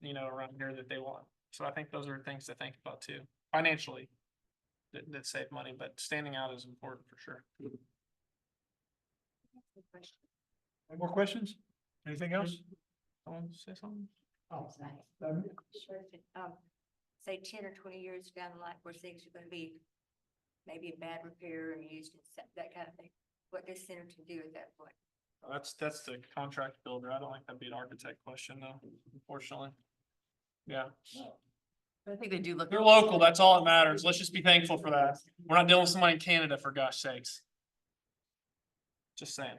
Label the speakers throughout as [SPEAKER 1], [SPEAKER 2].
[SPEAKER 1] you know, around here that they want. So I think those are things to think about too, financially. That, that save money, but standing out is important for sure.
[SPEAKER 2] Any more questions? Anything else?
[SPEAKER 1] Someone say something?
[SPEAKER 2] Oh,
[SPEAKER 3] I'm
[SPEAKER 2] um,
[SPEAKER 3] sure if it, um, Say ten or twenty years down the line where things are gonna be maybe in bad repair and used and stuff, that kind of thing. What does Centerton do at that point?
[SPEAKER 1] Oh, That's, that's the contract builder. I don't think that'd be an architect question though, unfortunately. Yeah,
[SPEAKER 4] I think they do look.
[SPEAKER 1] they're local. That's all that matters. Let's just be thankful for that. We're not dealing with somebody in Canada for gosh sakes. Just saying.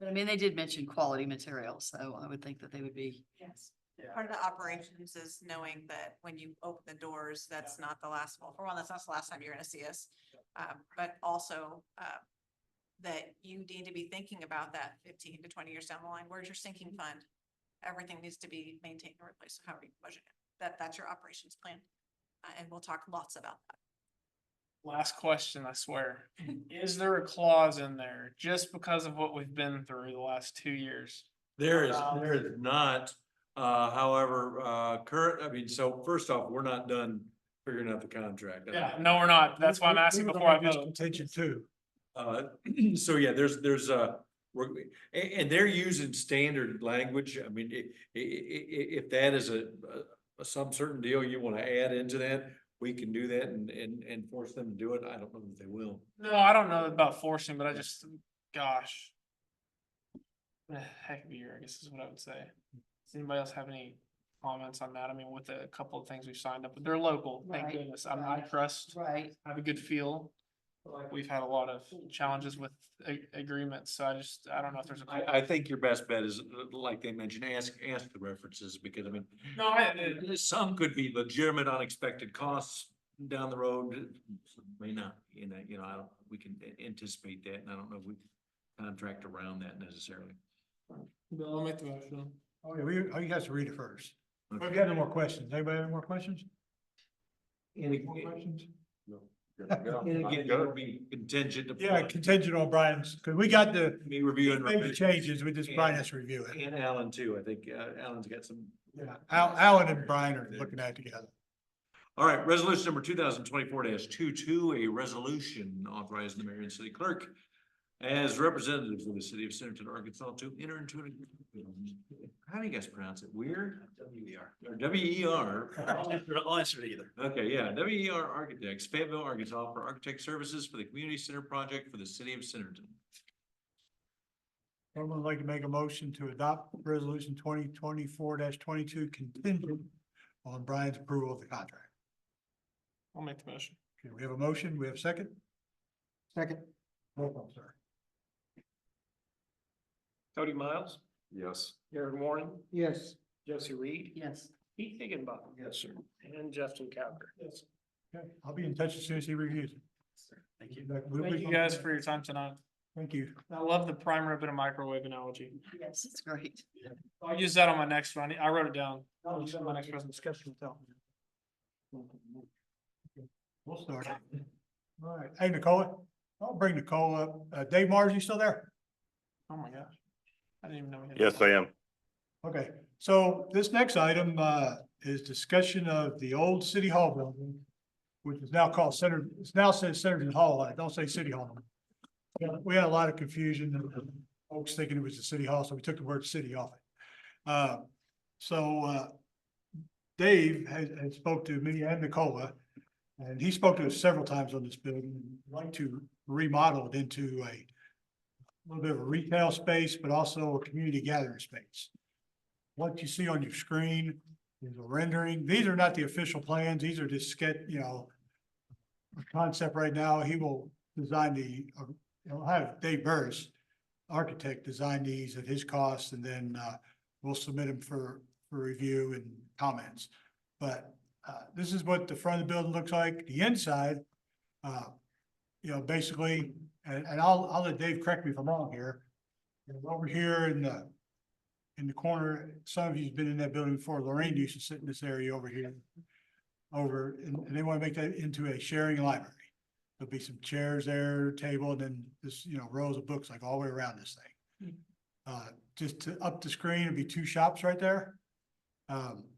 [SPEAKER 4] But I mean, they did mention quality material, so I would think that they would be.
[SPEAKER 5] Yes.
[SPEAKER 1] Yeah.
[SPEAKER 5] Part of the operations is knowing that when you open the doors, that's not the last, well, for one, that's not the last time you're gonna see us. Um, but also, uh, that you need to be thinking about that fifteen to twenty years down the line. Where's your sinking fund? Everything needs to be maintained and replaced. So How are you budgeting? That, that's your operations plan. Uh, and we'll talk lots about that.
[SPEAKER 1] Last question, I swear. Is there a clause in there just because of what we've been through the last two years?
[SPEAKER 6] There is,
[SPEAKER 1] Um,
[SPEAKER 6] there is not, uh, however, uh, current, I mean, so first off, we're not done figuring out the contract.
[SPEAKER 1] Yeah, no, we're not. That's why I'm
[SPEAKER 2] We- we
[SPEAKER 1] asking
[SPEAKER 2] were
[SPEAKER 1] before I
[SPEAKER 2] gonna do
[SPEAKER 1] vote.
[SPEAKER 2] Contention too.
[SPEAKER 6] Uh, so yeah, there's, there's a, we're, and, and they're using standard language. I mean, i- i- i- i- if that is a, a, some certain deal you want to add into that, we can do that and, and, and force them to do it. I don't know that they will.
[SPEAKER 1] No, I don't know about forcing, but I just, gosh. Eh, Heck of a year, I guess is what I would say. Does anybody else have any comments on that? I mean, with a couple of things we've signed up, but they're local, thank
[SPEAKER 4] Right,
[SPEAKER 1] goodness. I'm, I
[SPEAKER 4] right.
[SPEAKER 1] trust,
[SPEAKER 4] Right.
[SPEAKER 1] I have a good feel. but, Like, we've had a lot of challenges with a- agreements, so I just, I don't know if there's a.
[SPEAKER 6] I, I think your best bet is, uh, like they mentioned, ask, ask the references because I mean,
[SPEAKER 1] No, I, it-
[SPEAKER 6] Uh, Some could be legitimate unexpected costs down the road, some may not, you know, you know, I don't, we can a- anticipate that, and I don't know if we can contract around that necessarily.
[SPEAKER 1] Bill, I'll make the motion.
[SPEAKER 2] Oh, yeah, we, oh, you guys read it first. We've
[SPEAKER 6] Okay.
[SPEAKER 2] got no more questions. Anybody have any more questions?
[SPEAKER 6] Any
[SPEAKER 2] More questions?
[SPEAKER 6] And again, that would be contingent upon.
[SPEAKER 2] Yeah, contingent on Brian's, because we got the,
[SPEAKER 6] Me reviewing.
[SPEAKER 2] maybe changes, we just, Brian has to review it.
[SPEAKER 6] And Alan too, I think, uh, Alan's got some
[SPEAKER 2] Yeah, Al, Alan and Brian are looking at it together.
[SPEAKER 6] All right, resolution number two thousand twenty-four 22 a resolution authorizing the mayor and city clerk as representatives of the city of Centerton, Arkansas to enter into an, how do you guys pronounce it? Weird? W E R. Or W E R.
[SPEAKER 7] I'll answer it either.
[SPEAKER 6] Okay, yeah, W E R Architects, Fayetteville, Arkansas for architect services for the community center project for the city of Centerton.
[SPEAKER 2] Someone would like to make a motion to adopt resolution twenty twenty-four twenty-two contingent on Brian's approval of the contract.
[SPEAKER 1] I'll make the motion.
[SPEAKER 2] Okay, we have a motion, we have a second? Second. Roll call, sir.
[SPEAKER 7] Cody Miles,
[SPEAKER 6] Yes.
[SPEAKER 7] Aaron Warren,
[SPEAKER 2] Yes.
[SPEAKER 7] Josie Reed,
[SPEAKER 4] Yes.
[SPEAKER 7] Pete Higginbotham. Yes, sir. And Justin Cowger. Yes.
[SPEAKER 2] Okay, I'll be in touch as soon as he reviews it.
[SPEAKER 7] Thank you.
[SPEAKER 2] We'll be-
[SPEAKER 1] Thank you guys for your time tonight.
[SPEAKER 2] Thank you.
[SPEAKER 1] I love the prime rib and a microwave analogy.
[SPEAKER 4] Yes, it's great.
[SPEAKER 1] I'll use that on my next one. I wrote it down.
[SPEAKER 2] Oh,
[SPEAKER 1] I'll
[SPEAKER 2] you
[SPEAKER 1] use it on my next presentation.
[SPEAKER 2] We'll start. it. All right, hey Nicole, I'll bring Nicole up. Uh, Dave Mars, you still there?
[SPEAKER 1] Oh my gosh. I didn't even know. we had-
[SPEAKER 8] Yes, I am.
[SPEAKER 2] Okay, so this next item, uh, is discussion of the old city hall building, which is now called Center, it's now says Centerton Hall, I don't say City Hall. no more. Yeah, We had a lot of confusion, and folks thinking it was the city hall, so we took the word city off it. Uh, so, uh, Dave had, had spoke to me and Nicola, and he spoke to us several times on this building, We'd like to remodel it into a little bit of a retail space, but also a community gathering space what you see on your screen is a rendering. These are not the official plans. These are just sketch, you know, a concept right now. He will design the, uh, he'll have Dave Burris, architect, design these at his cost, and then, uh, we'll submit them for, for review and comments. But, uh, this is what the front of the building looks like. The inside, uh, you know, basically, and, and I'll, I'll let Dave correct me if I'm wrong here. You know, Over here in the, in the corner, some of you's been in that building before, Lorraine used to sit in this area over here. Over, and, and they wanna make that into a sharing library. There'll be some chairs there, table, and then this, you know, rows of books like all the way around this thing. Uh, just to up the screen, it'd be two shops right there. Um,